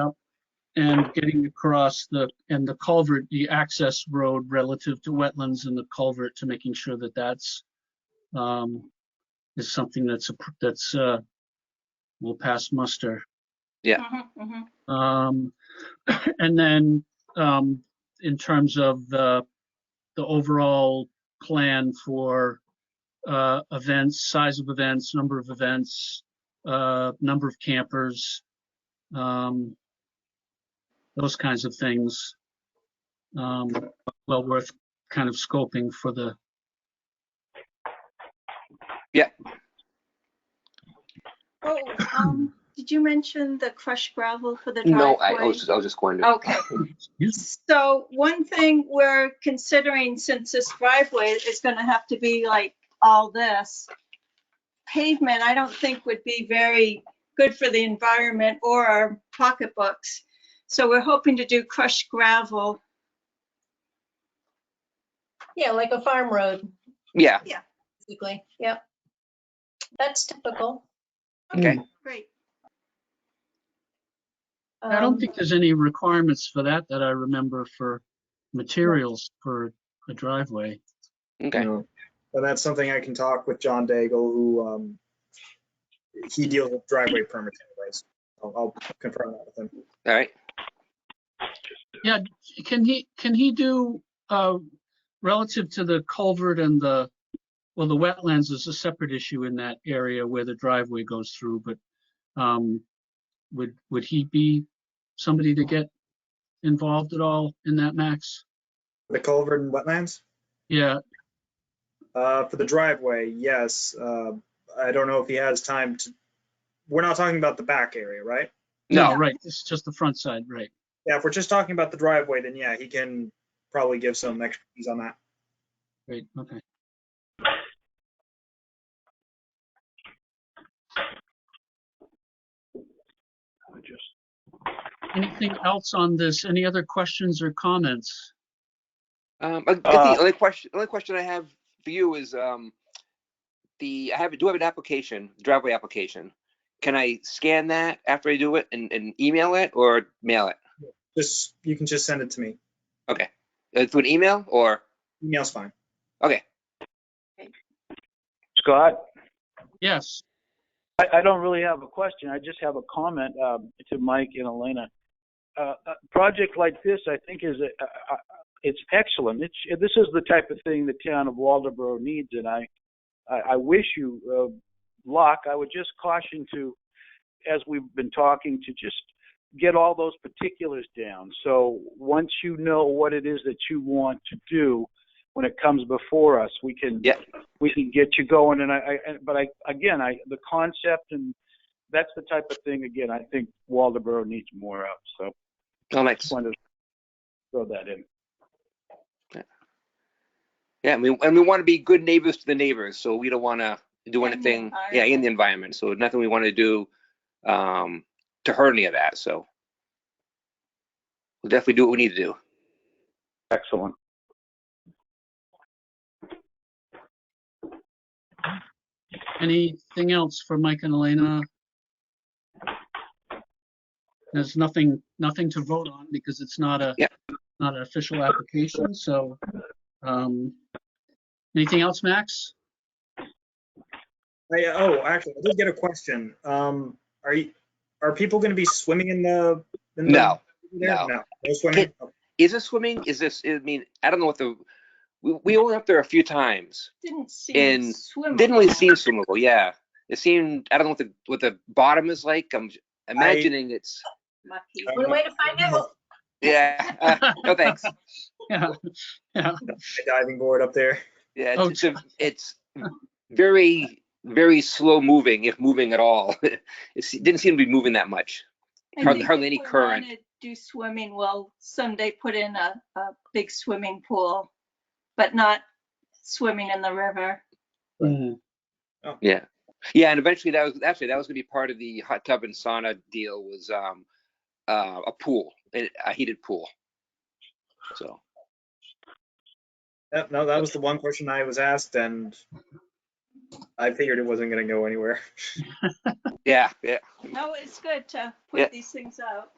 up and getting across the, and the culvert, the access road relative to wetlands and the culvert to making sure that that's, um, is something that's, appro- that's, uh, will pass muster. Yeah. Mhm, mhm. Um, and then, um, in terms of the, the overall plan for, uh, events, size of events, number of events, uh, number of campers, um, those kinds of things. Um, well worth kind of scoping for the. Oh, um, did you mention the crushed gravel for the driveway? No, I I was, just- I was just going to. Okay, so one thing we're considering, since this driveway is gonna have to be like all this, pavement, I don't think would be very good for the environment or our pocketbooks. So we're hoping to do crushed gravel. Yeah, like a farm road, Yeah, basically, yep. That's typical. okay. Great. I Um, don't think there's any requirements for that that I remember for materials for a driveway. Okay. you know. And that's something I can talk with John Daigle, who, um, he deals with driveway permits anyways. I'll, I'll confirm that with him. All right. Can he, can he do, uh, relative to the culvert and the, well, the wetlands is a separate issue in that area where the driveway goes through, but, um, would, would he be somebody to get involved at all in that, Max? The culvert and wetlands, Yeah, uh, for the driveway, yes. Uh, I don't know if he has time to, we're not talking about the back area, right? no, Yeah. right, it's just the front side, right. Yeah, if we're just talking about the driveway, then yeah, he can probably give some expertise on that. Great, okay. Anything else on this? Any other questions or comments? Um, I- I think the only question, only question I have for you is, um, the, I have, do have an application, driveway application. Can I scan that after I do it and, and email it or mail it? Just, you can just send it to me. Uh, Through an email or, Email's fine. okay, Scott, Yes, I, I don't really have a question. I just have a comment um, to Mike and Elena. Uh, a project like this, I think, is a, a, a, it's excellent. It's this is the type of thing the town of Waldoboro needs, and I I, I wish you uh, luck. I would just caution to, as we've been talking, to just get all those particulars down. So once you know what it is that you want to do, when it comes before us, we can Yeah. we can get you going. And I, I and- but I again, I the concept and that's the type of thing. Again, I think Waldeboro needs more of. So oh, nice. just wanted to throw that in. Yeah, and we, and we want to be good neighbors to the neighbors, so we don't want to do In the anything, yeah, in the environment, so nothing we want to do, um, to hurt any of that, so. We'll definitely do what we need to do. Excellent. anything else for Mike and Elena? There's nothing, nothing to vote on because it's not a, Yeah. not an official application, so, um, anything else, Max? I, oh, actually, I did get a question. Um, are you, are people gonna be swimming in the? in the- No, there? no. No, no swimming? Okay. Is this swimming? Is this, I mean, I don't know what the, we, we only went up there a few times. Didn't see. And Didn't really seem swimmable, yeah. It seemed, I don't know what the, what the bottom is like. I'm j- imagining it's, One way to find out. yeah, uh, no thanks. Yeah, yeah. Diving board up there. Yeah, Oh, it's, it's a- it's very, very slow moving, if moving at all. It se- didn't seem to be moving that much. hardly- hardly any current. Do swimming, we'll someday put in a, a big swimming pool, but not swimming in the river. Mhm. Yeah, and eventually that was, actually, that was gonna be part of the hot tub and sauna deal was, um, uh, a pool, a a heated pool. So, Yep, No, that was the one question I was asked and I figured it wasn't gonna go anywhere. yeah, yeah. No, it's good to Yeah. put these things out.